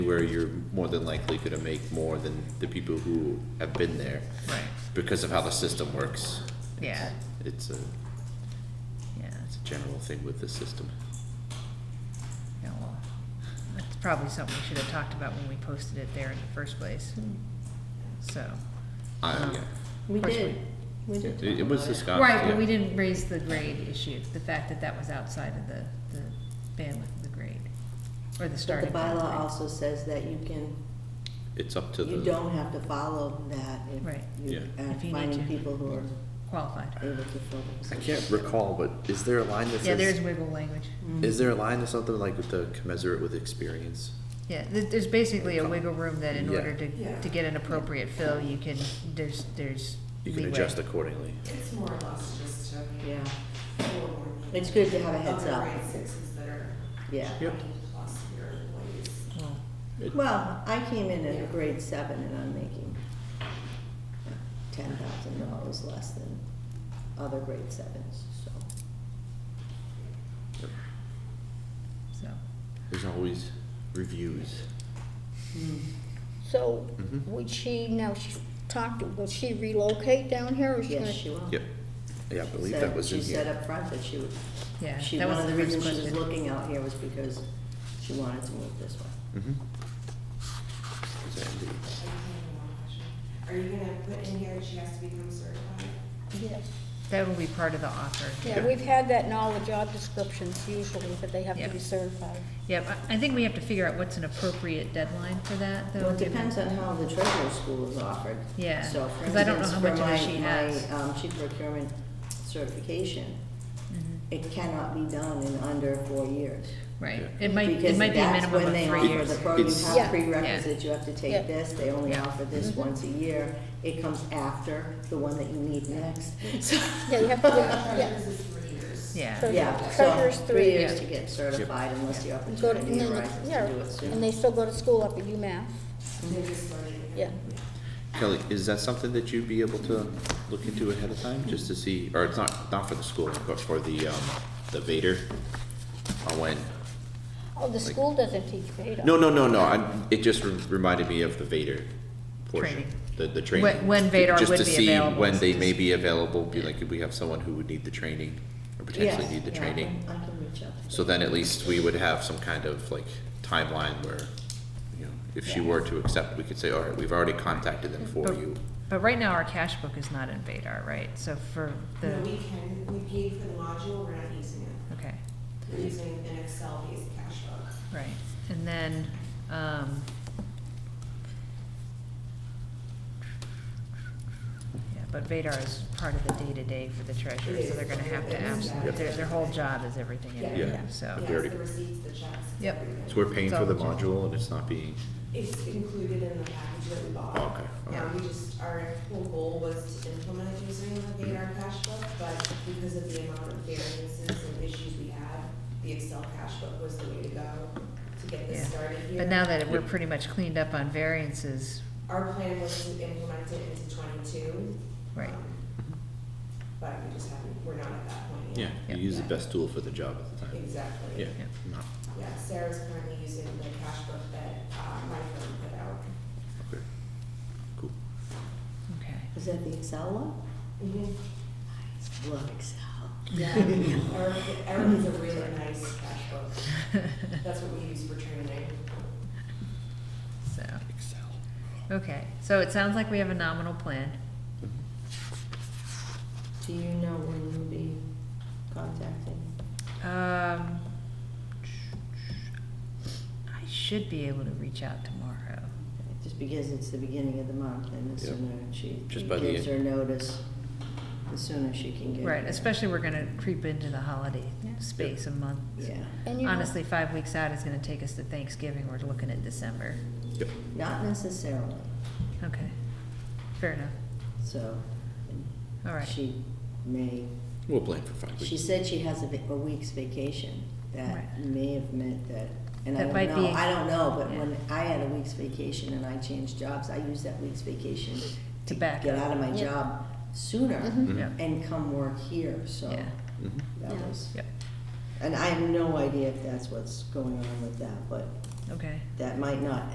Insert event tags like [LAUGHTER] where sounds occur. where you're more than likely gonna make more than the people who have been there Right, because of how the system works. yeah, It's a, yeah, it's a general thing with the system. yeah, well, that's probably something we should have talked about when we posted it there in the first place, so. I, um, yeah, We Of course did, we did it, it talk was about it. discussed, Right, but we yeah. didn't raise the grade issue, the fact that that was outside of the, the bandwidth of the grade, or the But the starting. point of the bylaw grade. also says that you can, It's up to the. you don't have to follow that Right. if Yeah. you are If you need finding to. people who are Qualified. able to fill I themselves. can't recall, but is there a line that says? Yeah, there's wiggle language. Mm-hmm. Is there a line or something like with the commensurate with experience? Yeah, th- there's basically a wiggle room that in Yeah. order to, Yeah. to get an appropriate fill, you can, there's, there's. You can leeway. adjust accordingly. It's more or less just a Yeah, forward. It's good to have a heads Other up. grade sixes that are yeah. Yep. twenty plus year employees. Well, It- Well, I came in at a grade seven and I'm making uh, ten thousand dollars less than other grade sevens, so. Yep. So, There's always reviews. So Mhm. Mm-hmm. would she, now she's talked, will she relocate down here or is she Yes, gonna? she will. Yep. Yeah, I believe Said- that was in She said here. up front that she would, yeah, she, that one was of the the first reasons she was question. looking out here was because she wanted to move this way. Mhm. Is that indeed? I just have one question. Are you gonna put in here she has to become certified? Yes. That will be part of the offer. Yeah, we've had that in all the job descriptions usually, but they have Yeah. to be certified. Yep, I, I think we have to figure out what's an appropriate deadline for that, though. Well, it given- depends on how the treasurer's school is offered. Yeah, So, for 'cause I don't know instance, how much for of it my- she has. My, um, chief procurement certification, Mhm, it cannot be done in under four years. Right, Yeah. it might, it Because might be a that's minimum when they of offer three years. The program It's- have Yeah. prerequisites, you have to Yeah. Mm-hmm. take this, they only Yeah. offer this once a year. It comes after the one that you need next, [LAUGHS] so. Yeah, you have to, do- Uh, yeah. This is three years. Yeah, So- Yeah, so, Treasurer's three. three years Yeah. to get certified unless the Go to- and opportunity then- arises yeah, to do it soon. And they still go to school up at UMass, They just Mm-hmm. started. yeah. Kelly, is that something that you'd be able to look into ahead of time, just to see, or it's not, not for the school, but for the, um, the Vader? On when, Oh, the Like- school doesn't teach Vadar. no, no, no, no, I, it just re- reminded me of the Vader portion. Training. The, the training. When- when Vader Just would to be see available, When they so may just- be available, be like, if we have someone who would need the training, or potentially Yes, need the yeah, I can- training. I can reach out. to So them. then at least we would have some kind of like timeline where, you know, if she Yeah. were to accept, we could say, all right, we've already contacted them for But- you. but right now our cash book is not in Vadar, right? So for No, we the, can, we paid for the module, we're not using it. okay, We're using an Excel-based cash book. right. And then, um, yeah, but Vadar is part of the day-to-day for the treasurer, so they're gonna have to absolutely, their, their whole job is everything in Yeah. there, Yeah. so. Yeah, Very it's the good. receipts, the checks. it's Yep. everything. So we're paying for the It's all- module and it's not being, It's included in the package that we bought. Oh, okay. Yeah. Um, we just, our whole goal was to implement using the Vadar cash book, but because of the amount of variances and issues we had, the Excel cash book was the way to go to get Yeah. this started here. But now that we're Yep. pretty much cleaned up on variances, Our plan was to implement it into twenty-two. Right. um, But we just haven't, we're not at that point yeah, you yet. Yeah. use the best tool for the job at the time. Exactly. Yeah, Yeah. no, Yeah, Sarah's currently using the cash book that, uh, my firm put out. okay, cool. okay. Is that the Excel one? Mm-hmm. Mhm. Love Excel. Yeah, Eric, Eric is a really nice cash book. That's what we use for training. So, Excel. okay, so it sounds like we have a nominal plan. Do you know when you'll be contacting? Um, I should be able to reach out tomorrow. Just because it's the beginning of the month and the Yep. sooner she Just by the gives end. her notice, the sooner she can get. Right, especially we're gonna creep into the holiday space a month. Yeah, And you know- Honestly, five weeks out is gonna take us to Thanksgiving, we're looking at December. Yep, not necessarily, Okay, fair enough, so. all right. She may, we'll plan for five she weeks. said she has a va- a week's vacation. That Right. may have meant that, and I That might don't know, be- I don't know, but yeah. when I had a week's vacation and I changed jobs, I used that week's vacation To back Mm-hmm. Get up. out of my Yeah. job sooner Mhm. Mhm. Yep, and come work here, so. Yeah. Mhm. That Yeah. was, yep, and I have no idea if that's what's going on with that, but okay. that might not